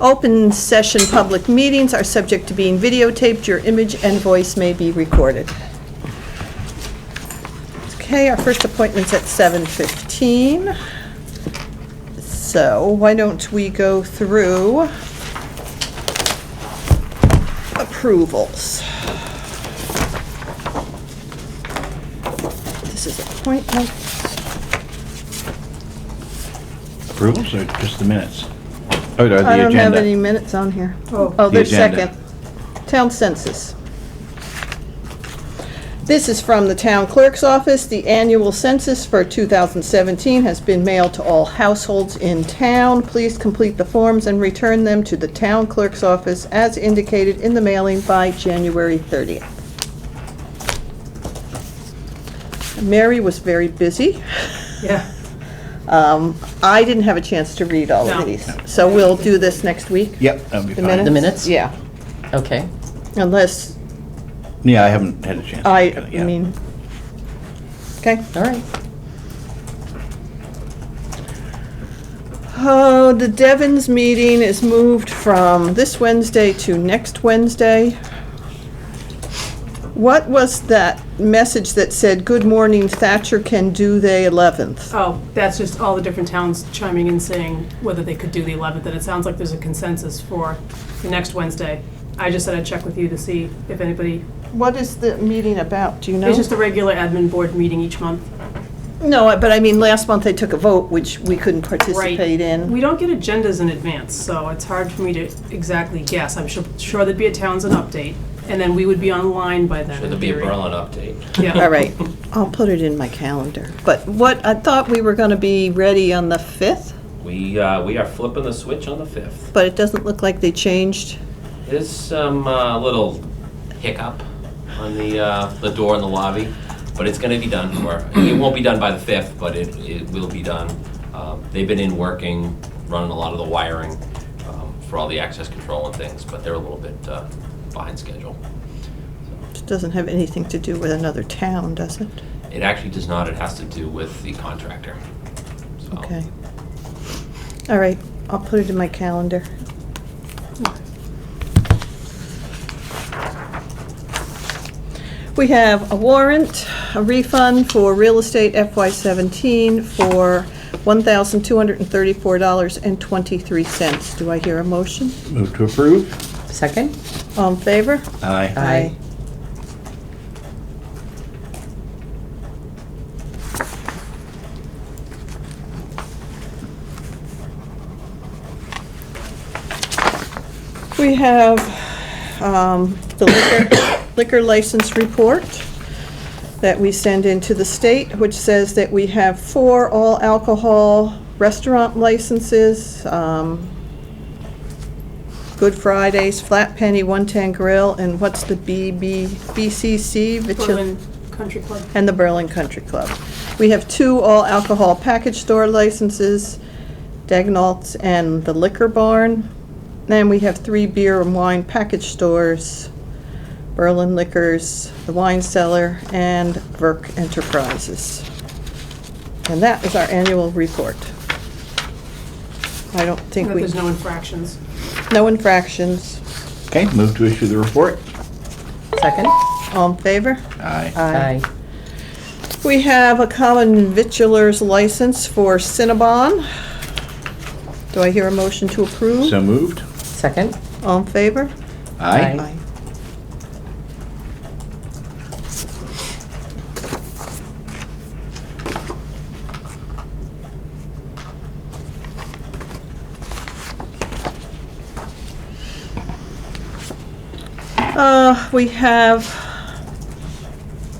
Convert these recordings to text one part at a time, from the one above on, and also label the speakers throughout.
Speaker 1: Open session public meetings are subject to being videotaped. Your image and voice may be recorded. Okay, our first appointment's at 7:15. So why don't we go through approvals? This is appointments.
Speaker 2: Approvals or just the minutes? Oh,
Speaker 1: I don't have any minutes on here. Oh, there's
Speaker 2: agenda.
Speaker 1: second. Town census. This is from the town clerk's office. The annual census for 2017 has been mailed to all households in town. Please complete the forms and return them to the town clerk's office as indicated in the mailing by January 30th. Mary was very busy.
Speaker 3: Yeah,
Speaker 1: Um, I didn't have a chance to read all of
Speaker 3: No.
Speaker 1: these, so we'll do this next week?
Speaker 2: Yep, that'd be
Speaker 1: The
Speaker 2: fine.
Speaker 1: minutes?
Speaker 4: The minutes?
Speaker 1: Yeah,
Speaker 4: Okay.
Speaker 1: unless
Speaker 2: Yeah, I haven't had a chance. to
Speaker 1: I,
Speaker 2: look at it
Speaker 1: I
Speaker 2: yet.
Speaker 1: mean, okay.
Speaker 4: All right.
Speaker 1: Oh, the Devon's meeting is moved from this Wednesday to next Wednesday. What was that message that said, "Good morning Thatcher can do the 11th"?
Speaker 3: oh, that's just all the different towns chiming in saying whether they could do the 11th, and it sounds like there's a consensus for the next Wednesday. I just said I'd check with you to see if anybody,
Speaker 1: What is the meeting about, do you know?
Speaker 3: it's just a regular admin board meeting each month.
Speaker 1: No, but I mean, last month they took a vote, which we couldn't
Speaker 3: Right.
Speaker 1: participate in.
Speaker 3: We don't get agendas in advance, so it's hard for me to exactly guess. I'm sure, sure there'd be a Townsend update, and then we would be online by then.
Speaker 5: Should
Speaker 3: in
Speaker 5: there be a
Speaker 3: theory.
Speaker 5: Berlin update?
Speaker 3: Yeah.
Speaker 1: All right, I'll put it in my calendar. But what, I thought we were going to be ready on the 5th?
Speaker 5: We, uh, we are flipping the switch on the 5th.
Speaker 1: but it doesn't look like they changed.
Speaker 5: There's some uh, little hiccup on the, uh, the door in the lobby, but it's gonna be done for, it won't be done by the 5th, but it, it will be done. Um, They've been in working, running a lot of the wiring um, for all the access control and things, but they're a little bit uh, behind schedule.
Speaker 1: It doesn't have anything to do with another town, does it?
Speaker 5: It actually does not, it has to do with the contractor. So,
Speaker 1: Okay. All right, I'll put it in my calendar. We have a warrant, a refund for real estate FY17 for $1,234.23. Do I hear a motion?
Speaker 2: Move to approve?
Speaker 4: Second?
Speaker 1: All in favor?
Speaker 2: Aye.
Speaker 4: Aye.
Speaker 1: We have um, the liquor- liquor license report that we send into the state, which says that we have four all alcohol restaurant licenses, um, Good Fridays, Flat Penny, One Ten Grill, and what's the BB, BCC? Vichil-
Speaker 3: Berlin Country Club.
Speaker 1: and the Berlin Country Club. We have two all-alcohol package store licenses, Dagnalds and the Liquor Barn. Then we have three beer and wine package stores, Berlin Liquors, the Wine Cellar, and Verk Enterprises. And that is our annual report. I don't think
Speaker 3: That
Speaker 1: we,
Speaker 3: there's no infractions.
Speaker 1: no infractions.
Speaker 2: Okay, move to issue the report?
Speaker 4: Second?
Speaker 1: All in favor?
Speaker 2: Aye.
Speaker 1: We have a common vitulers license for Cinnabon. Do I hear a motion to approve?
Speaker 2: So moved?
Speaker 4: Second?
Speaker 1: All in favor?
Speaker 2: Aye.
Speaker 4: Aye.
Speaker 1: Uh, We have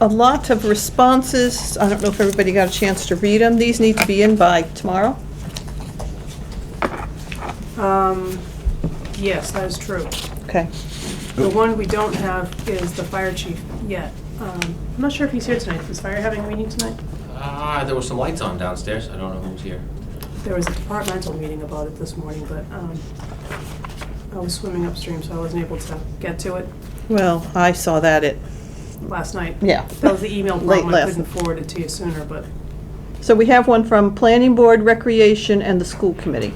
Speaker 1: a lot of responses. I don't know if everybody got a chance to read them. These need to be in by tomorrow.
Speaker 3: Um, Yes, that is true.
Speaker 1: Okay.
Speaker 3: The one we don't have is the fire chief yet. Um, I'm not sure if he's here tonight. Is fire having a meeting tonight?
Speaker 5: Ah, there were some lights on downstairs, I don't know who's here.
Speaker 3: There was a departmental meeting about it this morning, but um, I was swimming upstream, so I wasn't able to get to it
Speaker 1: Well, I saw that at,
Speaker 3: last night.
Speaker 1: yeah.
Speaker 3: That was the email
Speaker 1: Late
Speaker 3: problem. I
Speaker 1: last-
Speaker 3: couldn't forward it to you sooner, but
Speaker 1: So we have one from Planning Board, Recreation, and the School Committee.